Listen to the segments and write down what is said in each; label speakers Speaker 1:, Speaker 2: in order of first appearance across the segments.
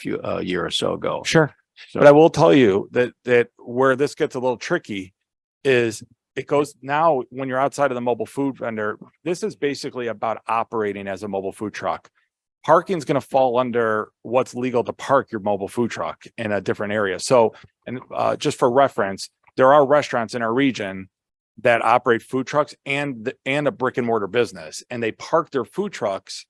Speaker 1: few,
Speaker 2: uh,
Speaker 1: a year or so ago.
Speaker 2: Sure.
Speaker 1: So-
Speaker 2: But I will tell you that, that where this gets a little tricky is it goes now, when you're outside of the mobile food vendor, this is basically about operating as a mobile food truck. Parking's gonna fall under what's legal to park your mobile food truck in a different area. So, and, uh, just for reference, there are restaurants in our region that operate food trucks and, th- and a brick and mortar business, and they park their food trucks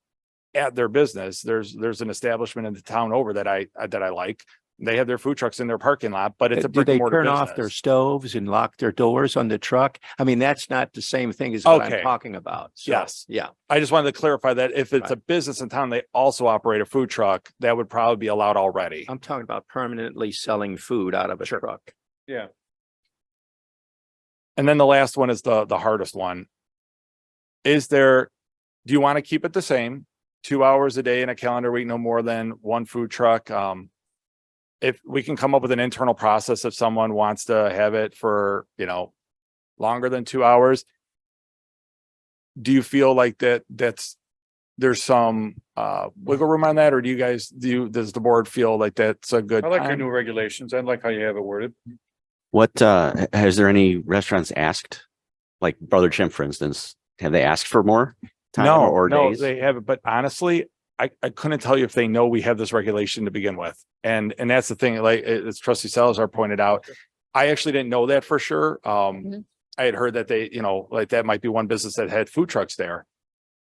Speaker 2: at their business. There's, there's an establishment in the town over that I, uh, that I like they have their food trucks in their parking lot, but it's a
Speaker 1: Uh, Do
Speaker 2: brick and
Speaker 1: they
Speaker 2: mortar
Speaker 1: turn off their
Speaker 2: business.
Speaker 1: stoves and lock their doors on the truck? I mean, that's not the same thing as what I'm
Speaker 2: Okay.
Speaker 1: talking about. So,
Speaker 2: Yes.
Speaker 1: Yeah,
Speaker 2: I just wanted to clarify that if it's a business in town, they also operate a food truck, that would probably be allowed already.
Speaker 1: I'm talking about permanently selling food out of a truck.
Speaker 2: And then the last one is the, the hardest one. Is there, do you want to keep it the same? Two hours a day in a calendar week, no more than one food truck? Um, if we can come up with an internal process, if someone wants to have it for, you know, longer than two hours. Do you feel like that, that's, there's some, uh, wiggle room on that? Or do you guys, do you, does the board feel like that's a good?
Speaker 3: I like your
Speaker 2: time?
Speaker 3: new regulations. I like how you have it worded.
Speaker 4: What, uh, h- has there any restaurants asked? Like Brother Chimp, for instance, have they asked for more time
Speaker 2: No,
Speaker 4: or
Speaker 2: no,
Speaker 4: days?
Speaker 2: they haven't. But honestly, I, I couldn't tell you if they know we have this regulation to begin with. And, and that's the thing, like, a- as trustee Salazar pointed out, I actually didn't know that for sure. Um,
Speaker 5: Mhm.
Speaker 2: I had heard that they, you know, like that might be one business that had food trucks there.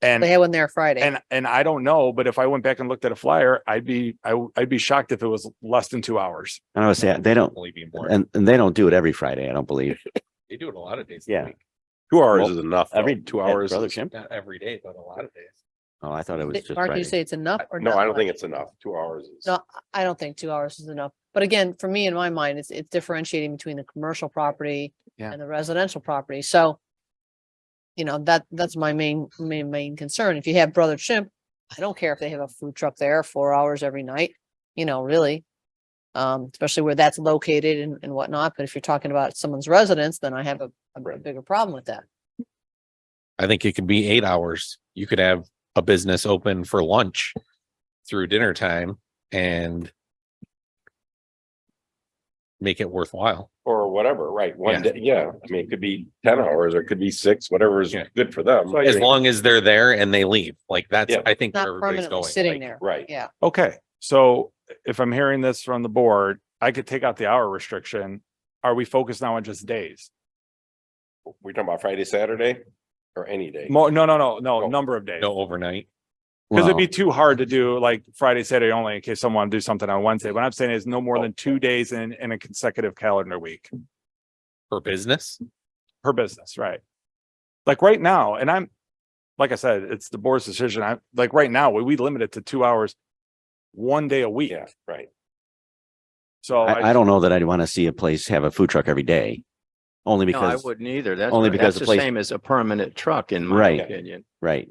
Speaker 5: They
Speaker 2: And,
Speaker 5: had one there Friday.
Speaker 2: and, and I don't know, but if I went back and looked at a flyer, I'd be, I, w- I'd be shocked if it was less than two hours.
Speaker 4: And I would say, they don't,
Speaker 6: Only be more.
Speaker 4: and, and they don't do it every Friday, I don't believe.
Speaker 6: They do it a lot of days.
Speaker 4: Yeah.
Speaker 6: a week.
Speaker 3: Two
Speaker 4: Well,
Speaker 3: hours is enough. though.
Speaker 4: Every
Speaker 6: Two
Speaker 4: at
Speaker 6: hours,
Speaker 4: Brother
Speaker 6: is
Speaker 4: Chimp?
Speaker 6: not every day, but a lot of days.
Speaker 4: Oh, I thought it was
Speaker 5: Th-
Speaker 4: just
Speaker 5: Mark, you
Speaker 4: Friday.
Speaker 5: say it's enough or
Speaker 3: No,
Speaker 5: not
Speaker 3: I don't think
Speaker 5: much?
Speaker 3: it's enough. Two hours is.
Speaker 5: No, I don't think two hours is enough. But again, for me, in my mind, it's, it's differentiating between the commercial property
Speaker 2: Yeah.
Speaker 5: and the residential property. So you know, that, that's my main, main, main concern. If you have Brother Chimp, I don't care if they have a food truck there four hours every night, you know, really. Um, especially where that's located and, and whatnot. But if you're talking about someone's residence, then I have a, a
Speaker 6: Right.
Speaker 5: bigger problem with that.
Speaker 6: I think it could be eight hours. You could have a business open for lunch through dinner time and make it worthwhile.
Speaker 3: Or whatever, right?
Speaker 6: Yeah.
Speaker 3: One day, yeah. I mean, it could be ten hours or it could be six, whatever is
Speaker 6: Yeah.
Speaker 3: good for them.
Speaker 6: As long as they're there and they leave, like that's,
Speaker 3: Yeah.
Speaker 6: I think where
Speaker 5: Not
Speaker 6: everybody's
Speaker 5: permanently
Speaker 6: going.
Speaker 5: sitting
Speaker 6: like,
Speaker 5: there.
Speaker 3: Right.
Speaker 5: Yeah.
Speaker 2: Okay, so if I'm hearing this from the board, I could take out the hour restriction. Are we focused now on just days?
Speaker 3: We're talking about Friday, Saturday or any day.
Speaker 2: More, no, no, no, no,
Speaker 3: Oh,
Speaker 2: number of days.
Speaker 6: No overnight.
Speaker 2: Because it'd
Speaker 4: Well,
Speaker 2: be too hard to do like Friday, Saturday only in case someone do something on Wednesday. What I'm saying is no more than two days in, in a consecutive calendar week
Speaker 6: For business,
Speaker 2: per business, right? Like right now, and I'm, like I said, it's the board's decision. I, like right now, we, we limit it to two hours, one day a week.
Speaker 3: Yeah, right.
Speaker 2: So
Speaker 4: I, I don't know that I'd want to see a place have a food truck every day. Only
Speaker 1: No, I
Speaker 4: because,
Speaker 1: wouldn't either. That's,
Speaker 4: only
Speaker 1: that's
Speaker 4: because the
Speaker 1: the
Speaker 4: place-
Speaker 1: same as a permanent truck in my
Speaker 4: Right.
Speaker 1: opinion.
Speaker 4: right.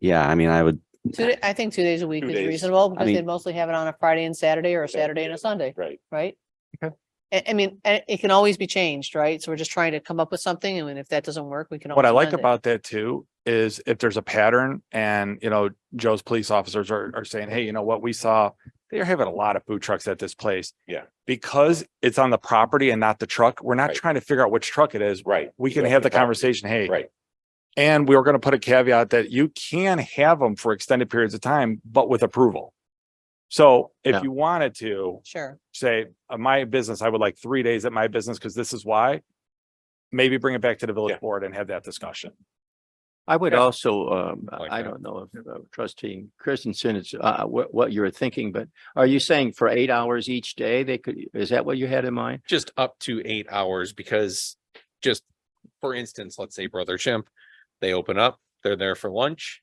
Speaker 4: Yeah, I mean, I would,
Speaker 5: Two, da- I think two days a week
Speaker 3: Two
Speaker 5: is
Speaker 3: days.
Speaker 5: reasonable because they
Speaker 4: mean-
Speaker 5: mostly have it on a Friday and Saturday or a
Speaker 3: Okay.
Speaker 5: Saturday and a Sunday,
Speaker 3: Right.
Speaker 5: right?
Speaker 2: Okay.
Speaker 5: I, I mean, a- it can always be changed, right? So we're just trying to come up with something and if that doesn't work, we can.
Speaker 2: What I
Speaker 5: always
Speaker 2: like
Speaker 5: amend it.
Speaker 2: about that too is if there's a pattern and, you know, Joe's police officers are, are saying, hey, you know what, we saw, they're having a lot of food trucks at this place.
Speaker 3: Yeah.
Speaker 2: Because it's on the property and not the truck, we're not
Speaker 3: Right.
Speaker 2: trying to figure out which truck it is.
Speaker 3: Right.
Speaker 2: We can
Speaker 3: That's
Speaker 2: have the
Speaker 3: problem.
Speaker 2: conversation, hey,
Speaker 3: Right.
Speaker 2: and we were going to put a caveat that you can have them for extended periods of time, but with approval. So
Speaker 1: Yeah.
Speaker 2: if you wanted to
Speaker 5: Sure.
Speaker 2: say, uh, my business, I would like three days at my business because this is why. Maybe bring it back to the village
Speaker 3: Yeah.
Speaker 2: board and have that discussion.
Speaker 1: I would
Speaker 3: Yeah.
Speaker 1: also, um,
Speaker 6: Like
Speaker 1: I
Speaker 6: that.
Speaker 1: don't know if uh, trustee Christensen, it's, uh, what, what you're thinking, but are you saying for eight hours each day, they could, is that what you had in mind?
Speaker 6: just up to eight hours because just for instance, let's say Brother Chimp, they open up, they're there for lunch.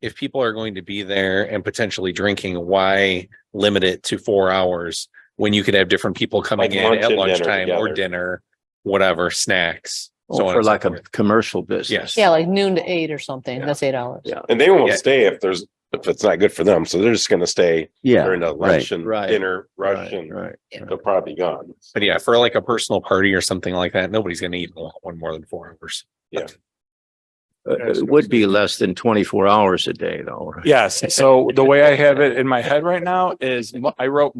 Speaker 6: If people are going to be there and potentially drinking, why limit it to four hours when you could have different people coming
Speaker 3: Like
Speaker 6: in
Speaker 3: lunch
Speaker 6: at
Speaker 3: and dinner
Speaker 6: lunchtime or
Speaker 3: together.
Speaker 6: dinner, whatever, snacks? so
Speaker 1: Or
Speaker 6: on
Speaker 1: for
Speaker 6: and so
Speaker 1: like a
Speaker 6: forth.
Speaker 1: commercial business?
Speaker 5: Yeah, like noon to eight or something. That's eight hours.
Speaker 1: Yeah.
Speaker 3: And they won't
Speaker 6: Yeah.
Speaker 3: stay if there's, if it's not good for them. So they're just gonna stay
Speaker 4: yeah,
Speaker 3: during the
Speaker 4: right,
Speaker 3: lunch and
Speaker 1: right,
Speaker 3: dinner rush
Speaker 1: Right,
Speaker 3: and
Speaker 1: right.
Speaker 3: they're probably gone.
Speaker 6: But yeah, for like a personal party or something like that, nobody's gonna eat in one more than four hours.
Speaker 3: Yeah.
Speaker 1: Uh,
Speaker 2: Yes,
Speaker 1: It would be less than twenty-four hours a day though. right?
Speaker 2: Yes, so the way I have it in my head right now is mo- I wrote